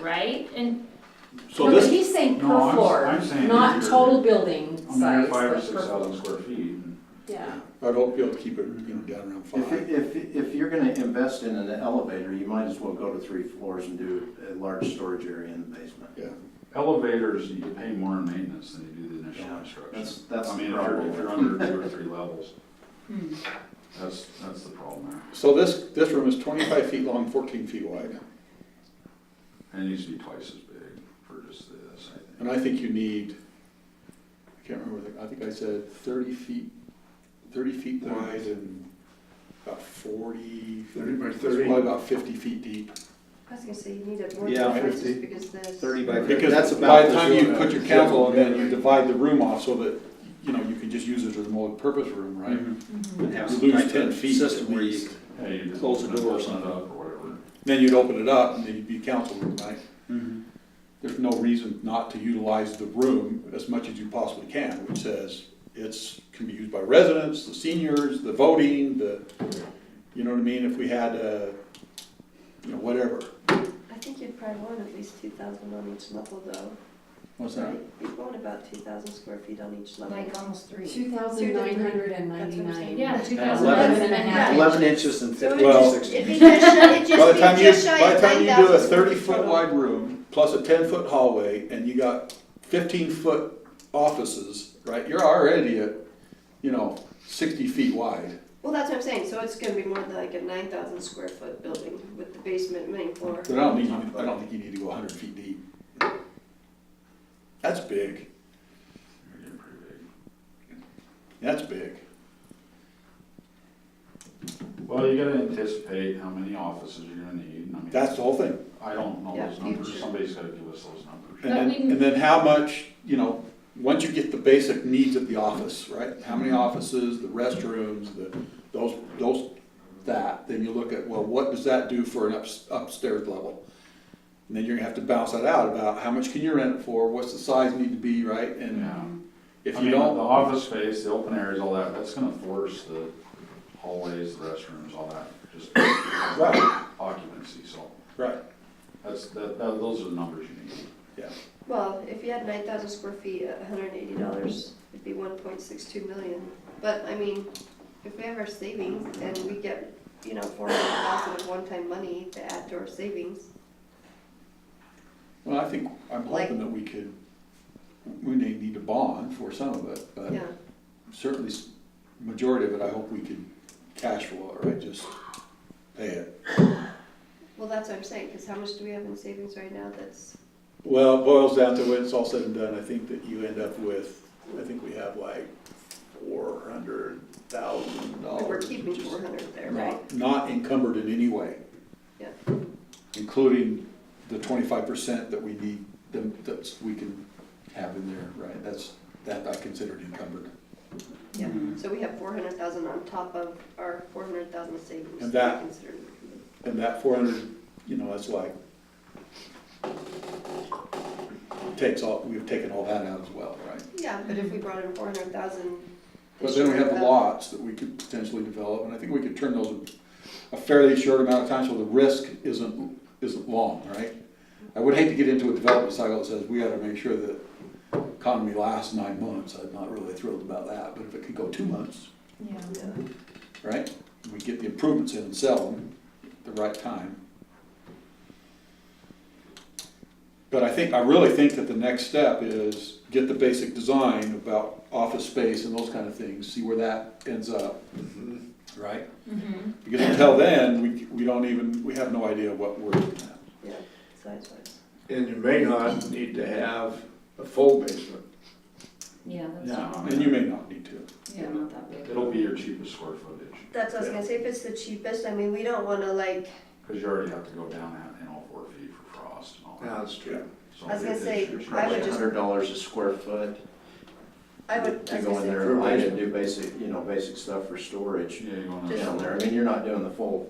right? And, So No, but this, he's saying per No, I'm- floor, I'm saying not if you're- total building I'm there size, five or but six per floor. thousand square feet. Yeah, I'd hope you'll keep it, you know, down around If, five. if, if you're gonna invest in an elevator, you might as well go to three floors and do a large storage area in the basement. Yeah. Elevators, you pay more in maintenance than you do the initial Yeah, construction. That's, that's I the mean, if you're, if you're problem. under two or three levels, hmm, that's, that's the problem there. So this, this room is twenty-five feet long, fourteen feet wide, And it needs to be twice as big for just this, I think. and I think you need, I can't remember, the- I think I said thirty feet, thirty feet wide and about forty. Thirty by it's thirty. Probably about fifty feet deep. I was gonna say, you need a board Yeah, conference fifty. just because this. Thirty by fifty, that's Because about. by the the time you zone. put your council on that, you divide the room off so that, you know, you can just use it as a multi-purpose room, right? Mm-hmm. Mm-hmm. mhm. Would have You some lose type of 10 feet System at where you, least. Yeah, you just Close the open it door or up something. Or whatever. Then you'd open it up and then you'd be council room, right? Mhm. there's no reason not to utilize the room as much as you possibly can, which says it's, can be used by residents, the seniors, the voting, the, you know what I mean, if we had, uh, you know, whatever. I think you'd probably want at least two thousand on each level though. What's You'd want about two thousand square feet on each level. Like almost three. two thousand nine hundred and ninety-nine. Yeah, two thousand Eleven eleven and a half. Yeah. eleven inches and So fifty it Well- to just, sixty. it'd be just shy, By it'd just the be time you, just shy by of the time nine thousand. you do a thirty foot wide room, plus a ten foot hallway, and you got fifteen foot offices, right, you're already at, you know, sixty feet wide. Well, that's what I'm saying, so it's gonna be more than like a nine thousand square foot building with the basement, main floor. But I don't think you, I don't think you need to go hundred feet deep. That's big. You're getting pretty big. That's big. Well, you gotta anticipate how many offices you're gonna need, and I mean. That's the whole thing. I don't know Yeah, those numbers, future. somebody's gotta give us those numbers. And then, and then how much, you know, once you get the basic needs of the office, right? How Mm-hmm. many offices, the restrooms, the, those, those, that, then you look at, well, what does that do for an ups- upstairs level? And then you're gonna have to bounce that out about how much can you rent it for, what's the size need to be, right? And Yeah. I if you mean, don't, The office space, the open areas, all that, that's gonna force the hallways, the restrooms, all that, just right, occupancy, so right, that's, that, that, those are the numbers you need. yeah. Well, if you had nine thousand square feet at hundred and eighty dollars, it'd be one point six two million. But, I mean, if we have our savings and we get, you know, four hundred thousand of one-time money to add to our savings, Well, I think, I'm Like- hoping that we could, we may need to bond for some of it, but yeah. certainly s- majority of it, I hope we could cash flow it, right, just pay it. Well, that's what I'm saying, because how much do we have in savings right now that's, Well, it boils down to when it's all said and done, I think that you end up with, I think we have like four hundred thousand dollars. we're keeping four hundred there, right? Not encumbered in any way. Yeah. Including the twenty-five percent that we need, that, that's, we can have in there, right, that's, that I considered encumbered. Yeah, so we have four hundred thousand on top of our four hundred thousand savings. And that- we considered. And that four hundred, you know, that's like, takes all, we've taken all that out as well, right? Yeah, but if we brought in four hundred thousand. But then we have the lots that we could potentially develop, and I think we could turn those in a fairly short amount of time, so the risk isn't, isn't long, right? I would hate to get into a development cycle that says, we gotta make sure that economy lasts nine months, I'm not really thrilled about that, but if it could go two months, Yeah. right? We get the improvements in and sell them at the right time. But I think, I really think that the next step is get the basic design about office space and those kind of things, see where that ends up, right? Mm-hmm. Mhm. Because until then, we, we don't even, we have no idea what we're looking at. Yeah, size-wise. And you may not need to have a full basement. Yeah, Yeah, that's, I And you may mean, not need to. yeah, not that big. it'll be your cheapest square footage, That's what I was gonna say, if it's the cheapest, I mean, we don't wanna like, cause you already have to go down that in all four feet for frost and all Yeah, that. that's true. So I was gonna it's say, your cheapest. I would Probably just- hundred dollars a square foot I would, I to was go gonna in say, there and light it, do basic, you know, basic stuff for storage Yeah, you're going to. down there. I mean, you're not doing the full,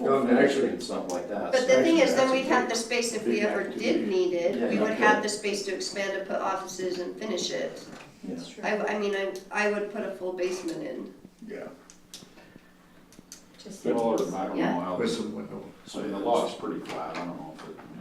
No, full but finishing actually- and stuff like that. But the So- thing is, That's then a we'd have big- the space if we big ever activity. did need Yeah, it, we yeah. would have the space to expand and put offices and finish it. That's true. I, I mean, I, I would put a full basement in. Yeah. Just- Well, or I don't know Yeah. how, With some window. I mean, the lot's pretty flat, I don't know if it